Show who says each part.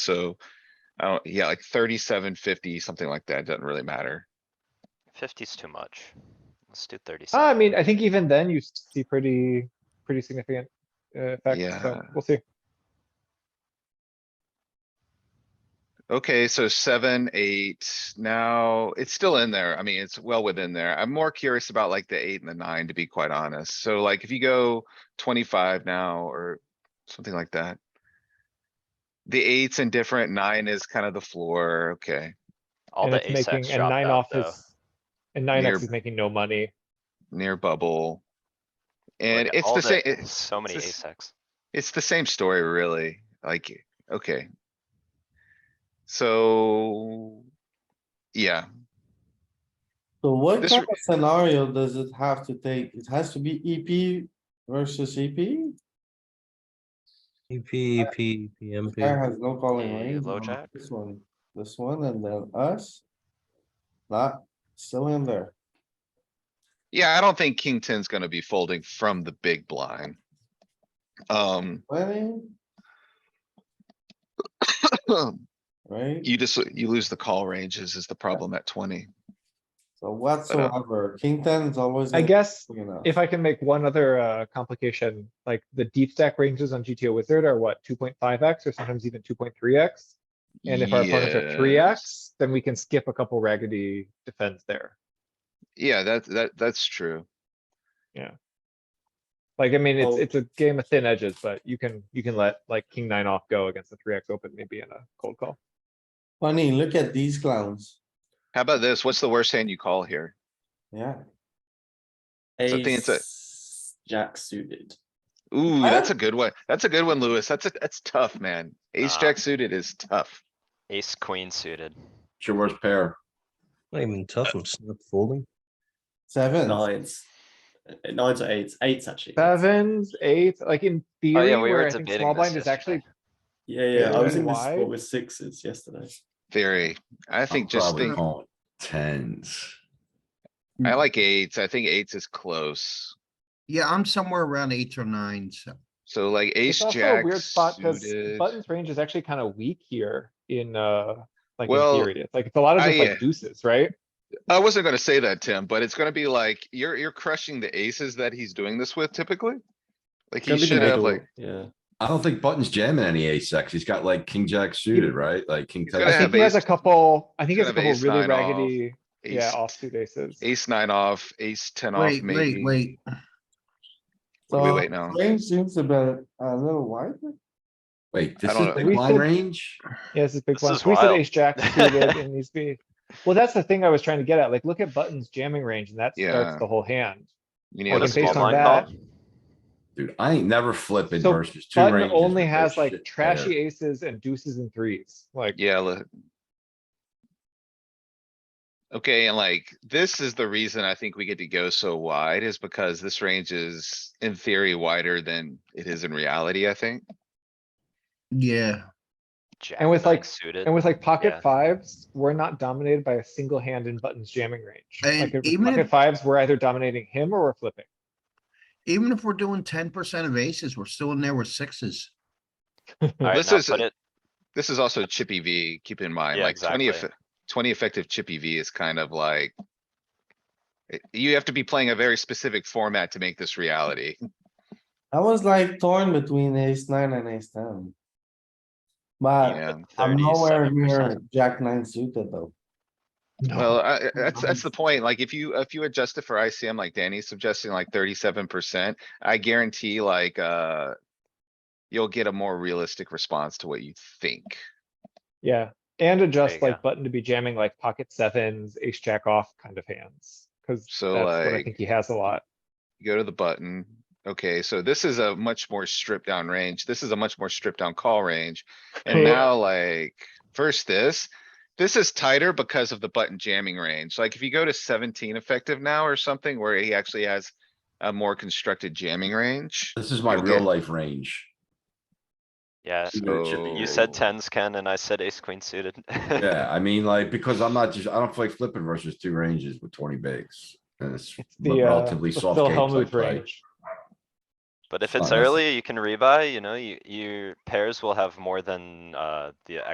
Speaker 1: So, I don't, yeah, like thirty-seven, fifty, something like that, doesn't really matter.
Speaker 2: Fifty's too much. Let's do thirty-seven.
Speaker 3: Uh, I mean, I think even then you see pretty, pretty significant uh, effects, so
Speaker 1: Yeah.
Speaker 3: we'll see.
Speaker 1: Okay, so seven, eight, now, it's still in there. I mean, it's well within there. I'm more curious about like the eight and the nine, to be quite honest. So like, if you go twenty-five now or something like that. The eight's indifferent, nine is kind of the floor, okay,
Speaker 2: All
Speaker 3: And
Speaker 2: the
Speaker 3: it's
Speaker 2: ace X
Speaker 3: making- and
Speaker 2: dropped
Speaker 3: nine
Speaker 2: out,
Speaker 3: off
Speaker 2: though.
Speaker 3: is- And nine X
Speaker 1: Near-
Speaker 3: is making no money.
Speaker 1: near bubble.
Speaker 2: Look
Speaker 1: And
Speaker 2: at
Speaker 1: it's
Speaker 2: all
Speaker 1: the same, it's,
Speaker 2: So many
Speaker 1: it's the
Speaker 2: ace X.
Speaker 1: It's the same story, really, like, okay. So, yeah,
Speaker 4: So what
Speaker 1: This
Speaker 4: kind
Speaker 1: re-
Speaker 4: of scenario does it have to take? It has to be EP versus E EP?
Speaker 3: E
Speaker 5: EP, EP, PMP.
Speaker 4: Guy has no calling
Speaker 2: Yeah,
Speaker 4: range.
Speaker 2: low
Speaker 4: on
Speaker 2: jack.
Speaker 4: This one, this one, and then us. Not still in there.
Speaker 1: yeah, I don't think king ten's gonna be folding from the big blind. Um,
Speaker 4: Twenty, right?
Speaker 1: you just, you lose the call ranges is the problem at twenty.
Speaker 4: So whatsoever, king ten is always.
Speaker 3: I
Speaker 4: gonna
Speaker 3: guess
Speaker 4: be big enough.
Speaker 3: if I can make one other uh, complication, like the deep stack ranges on GTO Wizard are what, two point five X or sometimes even two point three X? And if our opponents are three
Speaker 1: Yeah.
Speaker 3: X, then we can skip a couple raggedy defends there.
Speaker 1: Yeah, that, that, that's true.
Speaker 3: Like, I mean, it's,
Speaker 4: Oh.
Speaker 3: it's a game of thin edges, but you can, you can let like king nine off go against the three X open maybe in a cold call.
Speaker 4: Funny, look at these clowns.
Speaker 1: How about this? What's the worst hand you call here?
Speaker 4: Yeah,
Speaker 1: So I think it's a-
Speaker 6: Ace Jack suited.
Speaker 1: Ooh, that's a good one. That's a good one, Louis. That's a, that's tough, man. Ace
Speaker 2: Nah.
Speaker 1: jack suited is tough.
Speaker 2: Ace queen suited.
Speaker 7: It's your worst pair.
Speaker 5: Not even tough, I'm snap folding.
Speaker 4: seven.
Speaker 6: Nines. Uh, Nines or eights. Eights actually.
Speaker 3: Sevens, eights, like in theory,
Speaker 2: Oh, we were
Speaker 3: where I think
Speaker 2: debating
Speaker 3: small
Speaker 2: this
Speaker 3: blind is actually
Speaker 2: yesterday.
Speaker 6: Yeah, yeah. I was in this
Speaker 3: Why?
Speaker 6: spot with sixes yesterday.
Speaker 1: Theory. I think just think.
Speaker 7: Oh, Tens.
Speaker 3: Mm.
Speaker 1: I like eights. I think eights is close.
Speaker 8: Yeah, I'm somewhere around eight or nine, so
Speaker 1: So like
Speaker 3: It's
Speaker 1: ace
Speaker 3: also
Speaker 1: jack
Speaker 3: a weird spot because
Speaker 1: suited.
Speaker 3: Button's range is actually kind of weak here in, uh, like in
Speaker 1: Well,
Speaker 3: theory. It's like, it's a lot of just
Speaker 1: I, uh,
Speaker 3: like deuces, right?
Speaker 1: I wasn't gonna say that, Tim, but it's gonna be like, you're, you're crushing the aces that he's doing this with typically. Like he
Speaker 6: Gonna be the
Speaker 1: should have
Speaker 6: middle,
Speaker 1: like,
Speaker 6: Yeah.
Speaker 7: I don't think Button's jamming any ace X. He's got like king jack suited, right? Like king.
Speaker 1: He's
Speaker 7: ten
Speaker 1: gonna
Speaker 3: I
Speaker 1: have
Speaker 3: think he has a
Speaker 1: ace-
Speaker 3: couple, I think he
Speaker 1: he's
Speaker 3: has a
Speaker 1: gonna
Speaker 3: couple
Speaker 1: have
Speaker 3: really
Speaker 1: ace nine off,
Speaker 3: raggedy, yeah,
Speaker 1: ace,
Speaker 3: offsuit aces.
Speaker 1: ace nine off, ace ten off
Speaker 8: wait, wait,
Speaker 1: maybe.
Speaker 8: wait.
Speaker 1: What do we
Speaker 4: So,
Speaker 1: wait now?
Speaker 4: Range seems a bit, a little wider.
Speaker 7: Wait,
Speaker 1: I
Speaker 7: this
Speaker 1: don't
Speaker 7: is
Speaker 1: know.
Speaker 7: big
Speaker 3: We
Speaker 7: blind
Speaker 3: said-
Speaker 7: range?
Speaker 3: Yeah, this is big
Speaker 2: This
Speaker 3: one.
Speaker 2: is
Speaker 3: We said
Speaker 2: wild.
Speaker 3: ace jack suited and these be. Well, that's the thing I was trying to get at. Like, look at Button's jamming range and that
Speaker 1: Yeah.
Speaker 3: starts the whole hand.
Speaker 1: You
Speaker 3: Well,
Speaker 1: need
Speaker 2: What
Speaker 1: a
Speaker 2: a
Speaker 3: then
Speaker 2: small
Speaker 1: small
Speaker 3: based on
Speaker 2: blind
Speaker 1: blind.
Speaker 3: that-
Speaker 2: call.
Speaker 7: Dude, I ain't never flipping
Speaker 3: So
Speaker 7: versus two
Speaker 3: Button
Speaker 7: ranges.
Speaker 3: only
Speaker 7: with
Speaker 3: has
Speaker 7: this
Speaker 3: like
Speaker 7: shit
Speaker 3: trashy
Speaker 7: pair.
Speaker 3: aces and deuces and threes, like.
Speaker 1: Yeah. li- Okay, and like, this is the reason I think we get to go so wide is because this range is in theory wider than it is in reality, I think.
Speaker 8: Yeah,
Speaker 2: Jack
Speaker 3: And with,
Speaker 2: nine
Speaker 3: like-
Speaker 2: Suited.
Speaker 3: And with like
Speaker 2: Yeah.
Speaker 3: pocket fives, we're not dominated by a single hand in Button's jamming range. Like
Speaker 8: And
Speaker 3: if it's
Speaker 8: even
Speaker 3: pocket
Speaker 8: if-
Speaker 3: fives, we're either dominating him or we're flipping.
Speaker 8: even if we're doing ten percent of aces, we're still in there with sixes.
Speaker 2: Alright,
Speaker 1: This
Speaker 2: now
Speaker 1: is-
Speaker 2: put it,
Speaker 1: This is also chippy V, keep in mind,
Speaker 2: Yeah,
Speaker 1: like twenty,
Speaker 2: exactly.
Speaker 1: effe- twenty effective chippy V is kind of like. it- You have to be playing a very specific format to make this reality.
Speaker 4: I was like torn between ace nine and ace ten. But
Speaker 1: Yeah,
Speaker 4: I'm nowhere near
Speaker 2: 37%.
Speaker 4: Jack nine suited though.
Speaker 1: well, I, I- that's, that's the point. Like if you, if you adjust it for ICM, like Danny's suggesting like thirty-seven percent, I guarantee like, uh. You'll get a more realistic response to what you think.
Speaker 3: Yeah, and adjust
Speaker 2: you
Speaker 3: like Button to be jamming like pocket sevens, ace jack off kind of hands. Cause that's
Speaker 1: So,
Speaker 3: what I
Speaker 1: like-
Speaker 3: think he has a lot.
Speaker 1: Go to the button. Okay, so this is a much more stripped down range. This is a much more stripped down call range. And
Speaker 3: Cool.
Speaker 1: now like, first this, this is tighter because of the button jamming range. Like if you go to seventeen effective now or something where he actually has a more constructed jamming range.
Speaker 7: This is my
Speaker 1: Okay.
Speaker 7: real life range.
Speaker 2: yeah.
Speaker 1: So-
Speaker 2: You said tens, Ken, and I said ace queen suited.
Speaker 7: Yeah, I mean, like, because I'm not just, I don't play flipping versus two ranges with twenty bigs. And it's
Speaker 3: It's the, uh,
Speaker 7: relatively
Speaker 3: the
Speaker 7: soft
Speaker 3: Phil
Speaker 7: games I
Speaker 3: Hellmuth
Speaker 7: play.
Speaker 3: range.
Speaker 2: But if it's
Speaker 7: Oh, that's-
Speaker 2: early, you can rebuy, you know, you, your pairs will have more than, uh, the